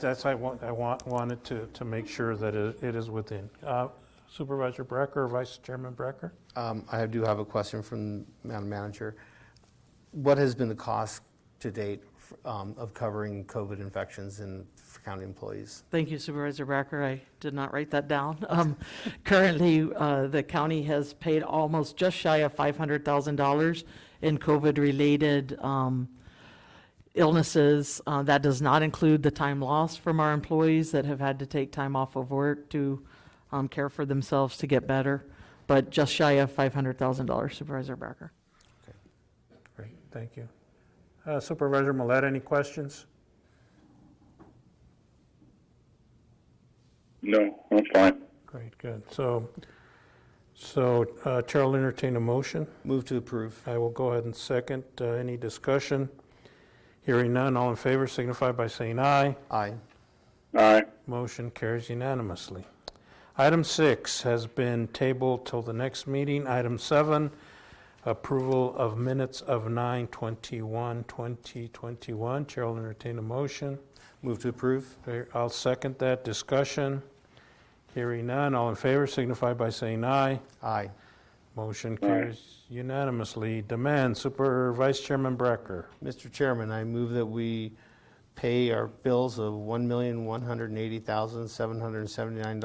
That's, I want, I want, wanted to, to make sure that it it is within. Uh, Supervisor Brecker, Vice Chairman Brecker? Um, I do have a question from Madam Manager. What has been the cost to date um, of covering COVID infections in, for county employees? Thank you Supervisor Bracker. I did not write that down. Um, Currently, uh, the county has paid almost just shy of $500,000 in COVID-related um, illnesses. Uh, That does not include the time lost from our employees that have had to take time off of work to um, care for themselves to get better, but just shy of $500,000 Supervisor Bracker. Great, thank you. Uh, Supervisor Millet, any questions? No, I'm fine. Great, good. So, so uh, Chair will entertain a motion. Move to approve. I will go ahead and second. Uh, Any discussion? Hearing none, all in favor signify by saying aye. Aye. Aye. Motion carries unanimously. Item six has been tabled till the next meeting. Item seven, approval of minutes of 9:21, 2021. Chair will entertain a motion. Move to approve. There- I'll second that. Discussion? Hearing none, all in favor signify by saying aye. Aye. Motion carries unanimously. Demand, Super Vice Chairman Brecker. Mr. Chairman, I move that we pay our bills of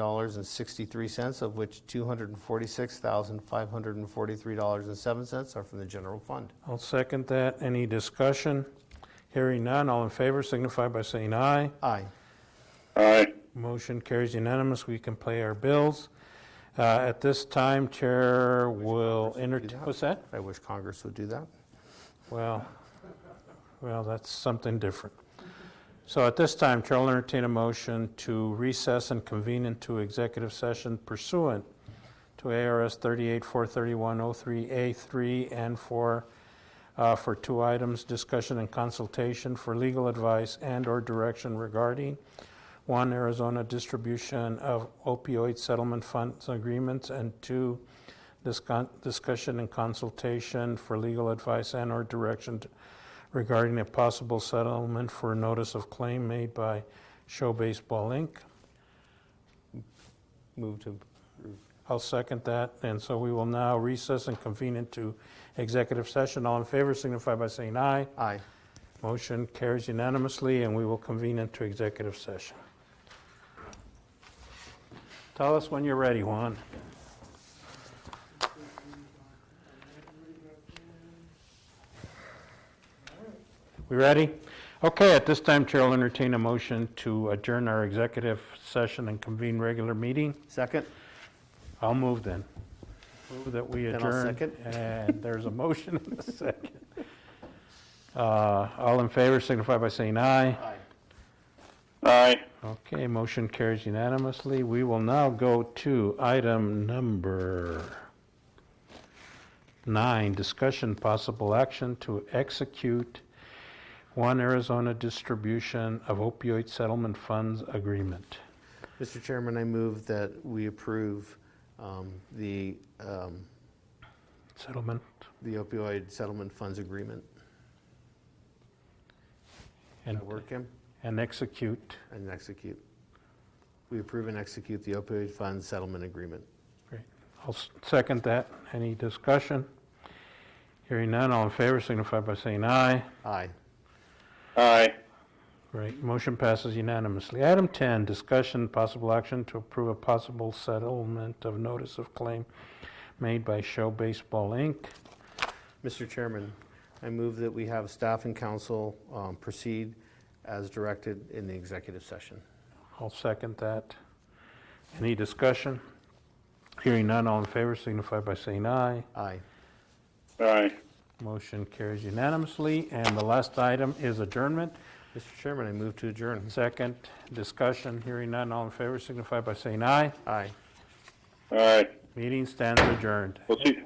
$1,180,779.63, of which $246,543.07 are from the general fund. I'll second that. Any discussion? Hearing none, all in favor signify by saying aye. Aye. Aye. Motion carries unanimous. We can pay our bills. Uh, At this time, Chair will entertain, what's that? I wish Congress would do that. Well, well, that's something different. So at this time, Chair will entertain a motion to recess and convene into executive session pursuant to ARS 38-431-03A3 and 4 uh, for two items, discussion and consultation for legal advice and/or direction regarding, one, Arizona distribution of opioid settlement funds agreements, and two, discon- discussion and consultation for legal advice and/or direction t- regarding a possible settlement for notice of claim made by Show Baseball Inc. Move to I'll second that, and so we will now recess and convene into executive session. All in favor signify by saying aye. Aye. Motion carries unanimously, and we will convene into executive session. Tell us when you're ready, Juan. We ready? Okay, at this time, Chair will entertain a motion to adjourn our executive session and convene regular meeting. Second? I'll move then. Move that we Then adjourn. I'll second. And there's a motion and a second. Uh, All in favor signify by saying aye. Aye. Aye. Okay, motion carries unanimously. We will now go to item number nine, discussion possible action to execute one Arizona distribution of opioid settlement funds agreement. Mr. Chairman, I move that we approve um, the um, Settlement, the opioid settlement funds agreement. and That work, Kim? and execute. And execute. We approve and execute the opioid funds settlement agreement. Great. I'll s- second that. Any discussion? Hearing none, all in favor signify by saying aye. Aye. Aye. Great, motion passes unanimously. Item 10, discussion, possible action to approve a possible settlement of notice of claim made by Show Baseball, Inc. Mr. Chairman, I move that we have staff and council um, proceed as directed in the executive session. I'll second that. Any discussion? Hearing none, all in favor signify by saying aye. Aye. Aye. Motion carries unanimously. And the last item is adjournment. Mr. Chairman, I move to adjourn. Second, discussion, hearing none, all in favor signify by saying aye. Aye. Aye. Meeting stands adjourned. We'll see.